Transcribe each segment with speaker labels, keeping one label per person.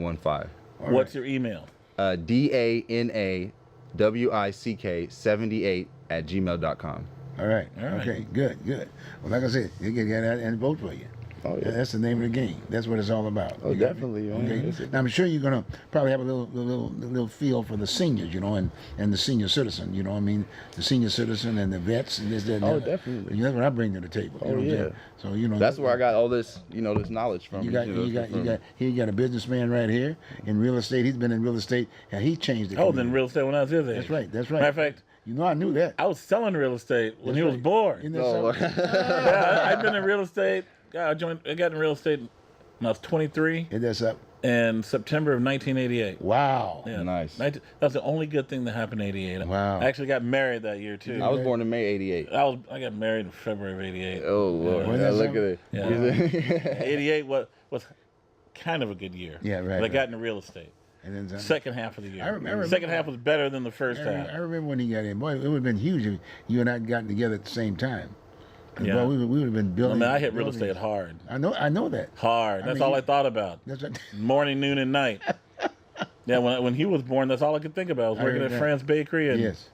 Speaker 1: 815.
Speaker 2: All
Speaker 3: What's
Speaker 2: right.
Speaker 3: your email?
Speaker 1: Uh, D A N A W I C K 78 at gmail.com.
Speaker 2: All right.
Speaker 3: All right.
Speaker 2: Okay. Good. Good. Well, like I said, you can get out and vote for you.
Speaker 4: Oh yeah.
Speaker 2: That's the name of the game. That's what it's all about.
Speaker 4: Oh,
Speaker 2: You got me?
Speaker 4: definitely, man. It's
Speaker 2: Okay.
Speaker 4: a-
Speaker 2: Now, I'm sure you're gonna probably have a little, little, little feel for the seniors, you know, and, and the senior citizen. You know, what I mean, the senior citizen and the vets and this, that. And
Speaker 4: Oh,
Speaker 2: that.
Speaker 4: definitely.
Speaker 2: And that's what I bring to the table. you
Speaker 4: Oh,
Speaker 2: know what I'm
Speaker 4: yeah.
Speaker 2: saying? So you know.
Speaker 1: That's where I got all this, you know, this knowledge from.
Speaker 2: You got,
Speaker 1: know,
Speaker 2: you got, you
Speaker 1: from-
Speaker 2: got. He got a businessman right here in real estate. He's been in real estate, and he changed it.
Speaker 3: Oh, then real estate when I was his age.
Speaker 2: That's right. That's right.
Speaker 3: Matter of fact,
Speaker 2: you know, I knew that.
Speaker 3: I was selling real estate when
Speaker 2: That's
Speaker 3: he was
Speaker 2: right.
Speaker 3: born.
Speaker 2: Isn't that
Speaker 1: Oh,
Speaker 2: something?
Speaker 3: Yeah, I, I've been in real estate. God, I joined. I got in real estate when I was 23
Speaker 2: Isn't that something?
Speaker 3: in September of 1988.
Speaker 2: Wow.
Speaker 3: Yeah.
Speaker 1: Nice.
Speaker 3: 19 That's the only good thing that happened in '88.
Speaker 2: Wow.
Speaker 3: I actually got married that year too.
Speaker 1: I was born in May 88.
Speaker 3: I was. I got married in February of '88.
Speaker 1: Oh, Lord.
Speaker 2: Wasn't
Speaker 1: Yeah,
Speaker 2: that
Speaker 1: look
Speaker 2: something?
Speaker 1: at it.
Speaker 3: '88 was was kind of a good year.
Speaker 2: Yeah, right,
Speaker 3: But I
Speaker 2: right.
Speaker 3: got into real estate.
Speaker 2: And then something.
Speaker 3: Second half of the year.
Speaker 2: I remember-
Speaker 3: Second half was better than the first
Speaker 2: I,
Speaker 3: half.
Speaker 2: re- I remember when he got in. Boy, it would have been huge if you and I had gotten together at the same time. 'Cause,
Speaker 3: Yeah.
Speaker 2: boy, we, would- we would have been
Speaker 3: I
Speaker 2: building.
Speaker 3: mean, I hit real
Speaker 2: buildings.
Speaker 3: estate hard.
Speaker 2: I know. I know that.
Speaker 3: Hard.
Speaker 2: I
Speaker 3: That's
Speaker 2: mean,
Speaker 3: all
Speaker 2: you-
Speaker 3: I thought about.
Speaker 2: That's right.
Speaker 3: Morning, noon, and night. yeah, when, I- when he was born, that's all I could think about. I was
Speaker 2: I
Speaker 3: working at
Speaker 2: remember.
Speaker 3: Fran's Bakery and
Speaker 2: yes.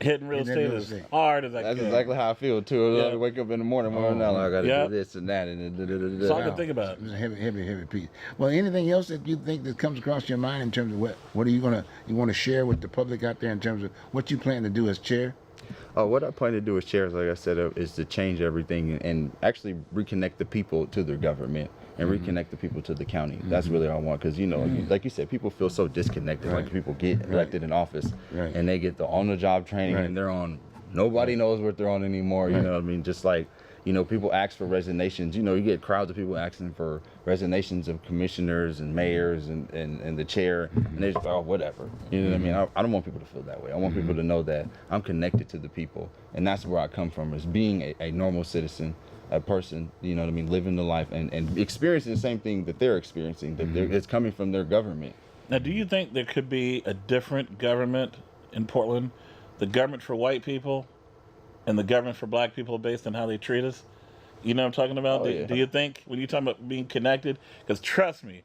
Speaker 3: hitting real
Speaker 2: And then
Speaker 3: estate
Speaker 2: real
Speaker 3: as
Speaker 2: estate.
Speaker 3: hard as I
Speaker 1: That's
Speaker 3: could.
Speaker 1: exactly how I feel, too.
Speaker 3: Yeah.
Speaker 1: I wake up in the morning,
Speaker 2: Oh,
Speaker 1: morning, now, like, I got to
Speaker 3: Yeah.
Speaker 1: do this and that. and da- da- da- da-
Speaker 3: That's all I
Speaker 1: da.
Speaker 3: could think about.
Speaker 2: It was a heavy, heavy, heavy piece. Well, anything else that you think that comes across your mind in terms of what what are you gonna you want to share with the public out there in terms of what you plan to do as chair?
Speaker 1: Oh, what I plan to do with shares, like I said, uh, is to change everything and, and actually reconnect the people to their government and
Speaker 2: Mm-hmm.
Speaker 1: reconnect the people to the county. That's really all I want because you know, you- like you said, people feel so disconnected. Like
Speaker 2: Right.
Speaker 1: people get elected in office
Speaker 2: Right.
Speaker 1: and they get the on-the-job training
Speaker 2: Right.
Speaker 1: and they're on. Nobody knows what they're on anymore. You know what I mean? Just like you know, people ask for resignations. You know, you get crowds of people asking for resignations of commissioners and mayors and, and, and the chair, and they just oh whatever. You know what I mean? I, I don't want people to feel that way. I want people to know that I'm connected to the people, and that's where I come from is being a, a normal citizen, a person. You know what I mean? Living the life and, and experiencing the same thing that they're experiencing. That they're, it's coming from their government.
Speaker 3: Now, do you think there could be a different government in Portland? The government for white people and the government for black people based on how they treat us? You know what I'm talking about?
Speaker 1: Oh,
Speaker 3: do,
Speaker 1: yeah.
Speaker 3: do you think, when you talk about being connected, because trust me,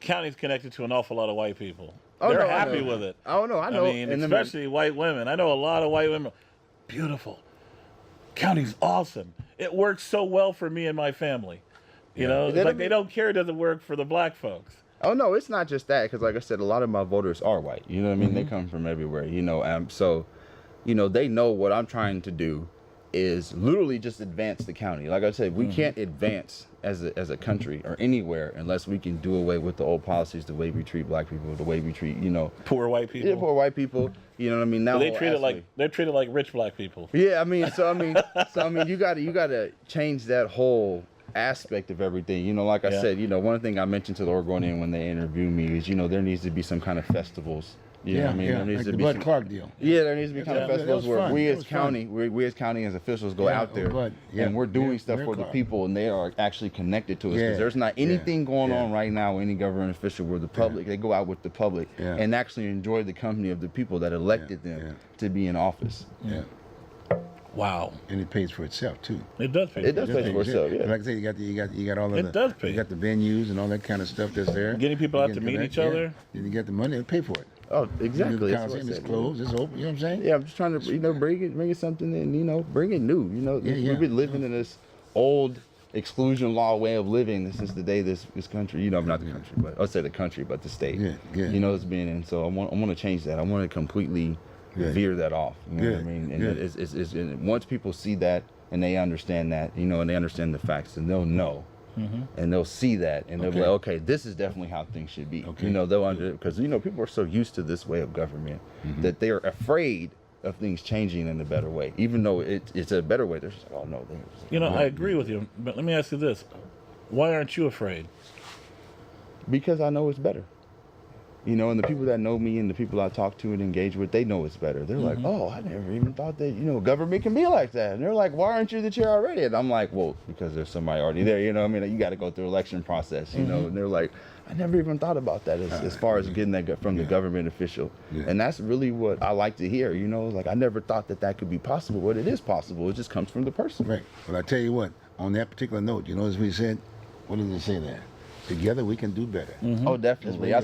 Speaker 3: county's connected to an awful lot of white people.
Speaker 1: Oh,
Speaker 3: They're
Speaker 1: no, I
Speaker 3: happy
Speaker 1: know.
Speaker 3: with it.
Speaker 1: Oh no, I know.
Speaker 3: I mean,
Speaker 1: And then-
Speaker 3: especially white women. I know a lot of white women. Beautiful. County's awesome. It works so well for me and my family. You know, it's
Speaker 1: Doesn't
Speaker 3: like they
Speaker 1: it-
Speaker 3: don't care it doesn't work for the black folks.
Speaker 1: Oh no, it's not just that because, like I said, a lot of my voters are white. You know what I mean? They
Speaker 3: Mm-hmm.
Speaker 1: come from everywhere. You know, um, so you know they know what I'm trying to do is literally just advance the county. Like I said, we
Speaker 3: Mm-hmm.
Speaker 1: can't advance as a as a country or anywhere unless we can do away with the old policies, the way we treat black people, the way we treat you know
Speaker 3: Poor white people.
Speaker 1: yeah, poor white people. You know what I mean? Now
Speaker 3: they
Speaker 1: whole
Speaker 3: treat it like
Speaker 1: aspect.
Speaker 3: they're treated like rich black people.
Speaker 1: Yeah, I mean, so I mean, so I mean, you gotta you gotta change that whole aspect of everything. You know, like I
Speaker 3: Yeah.
Speaker 1: said, you know, one thing I mentioned to the Oregonian when they interviewed me is, you know, there needs to be some kind of festivals. You know what I mean? there needs
Speaker 2: like
Speaker 1: to
Speaker 2: the
Speaker 1: be
Speaker 2: Bud
Speaker 1: some-
Speaker 2: Clark deal.
Speaker 1: yeah, there needs to be kind
Speaker 2: Yeah,
Speaker 1: of
Speaker 2: that
Speaker 1: festivals
Speaker 2: was
Speaker 1: where
Speaker 2: fun.
Speaker 1: we
Speaker 2: That
Speaker 1: as
Speaker 2: was
Speaker 1: county, we, we as county as officials go
Speaker 2: Yeah,
Speaker 1: out there
Speaker 2: but, yeah,
Speaker 1: and we're doing
Speaker 2: yeah,
Speaker 1: stuff
Speaker 2: we're
Speaker 1: for the
Speaker 2: caught.
Speaker 1: people, and they are actually connected to us. 'cause
Speaker 2: Yeah,
Speaker 1: there's not
Speaker 2: yeah,
Speaker 1: anything going
Speaker 2: yeah.
Speaker 1: on right now, with any government official, where the public they go out with the public
Speaker 2: Yeah.
Speaker 1: and actually enjoy the company of the people that elected them
Speaker 2: yeah.
Speaker 1: to be in office.
Speaker 2: Yeah,
Speaker 3: Wow.
Speaker 2: and it pays for itself too.
Speaker 3: It does pay.
Speaker 1: It does
Speaker 2: It
Speaker 1: pay
Speaker 2: pays
Speaker 1: for itself. Yeah.
Speaker 2: Like I said, you got the, you got you got all of
Speaker 3: It
Speaker 2: the
Speaker 3: does pay.
Speaker 2: you got the venues and all that kind of stuff that's there.
Speaker 3: Getting people
Speaker 2: You
Speaker 3: out to
Speaker 2: get
Speaker 3: meet
Speaker 2: that,
Speaker 3: each
Speaker 2: yeah.
Speaker 3: other.
Speaker 2: Then you got the money to pay for it.
Speaker 1: Oh, exactly.
Speaker 2: The
Speaker 1: that's what I
Speaker 2: Coliseum is
Speaker 1: said.
Speaker 2: closed. It's open. You know what I'm saying?
Speaker 1: Yeah, I'm just trying to you know bring it, bring it something, and you know bring it new. You know,
Speaker 2: Yeah, yeah.
Speaker 1: we've been living in this old exclusion law way of living since the day this this country. You know, not the country, but I'll say the country, but the state.
Speaker 2: Good, good.
Speaker 1: You know, it's been in. So I want I want to change that. I want to completely
Speaker 2: Good.
Speaker 1: veer that off. You know what I
Speaker 2: Good,
Speaker 1: mean? And
Speaker 2: good.
Speaker 1: it's, it's, it's, and once people see that and they understand that, you know, and they understand the facts, and they'll know. And they'll see that, and they'll be
Speaker 2: Mm-hmm. Okay.
Speaker 1: like, "Okay, this is definitely how things should be."
Speaker 2: Okay.
Speaker 1: You know, they'll under because you know people are so used to this way of government that they are afraid of things changing in a better way, even though it, it's a better way. They're just like, "Oh no, they
Speaker 3: You know, I agree with you, but let me ask you this: Why aren't you afraid?
Speaker 1: because I know it's better." You know, and the people that know me and the people I talk to and engage with, they know it's better. They're like, "Oh, I never even thought that you know government can be like that." And they're like, "Why aren't you the chair already?" And I'm like, "Well, because there's somebody already there." You know, what I mean, you got to go through election process. You know, and they're like, "I never even thought about that as, as far as getting that go- from the government official."
Speaker 2: Yeah.
Speaker 1: And that's really what I like to hear. You know, like I never thought that that could be possible, but it is possible. It just comes from the person.
Speaker 2: Right. But I tell you what, on that particular note, you know as we said, what does it say there?
Speaker 5: Together we can do better.
Speaker 2: Oh, definitely. I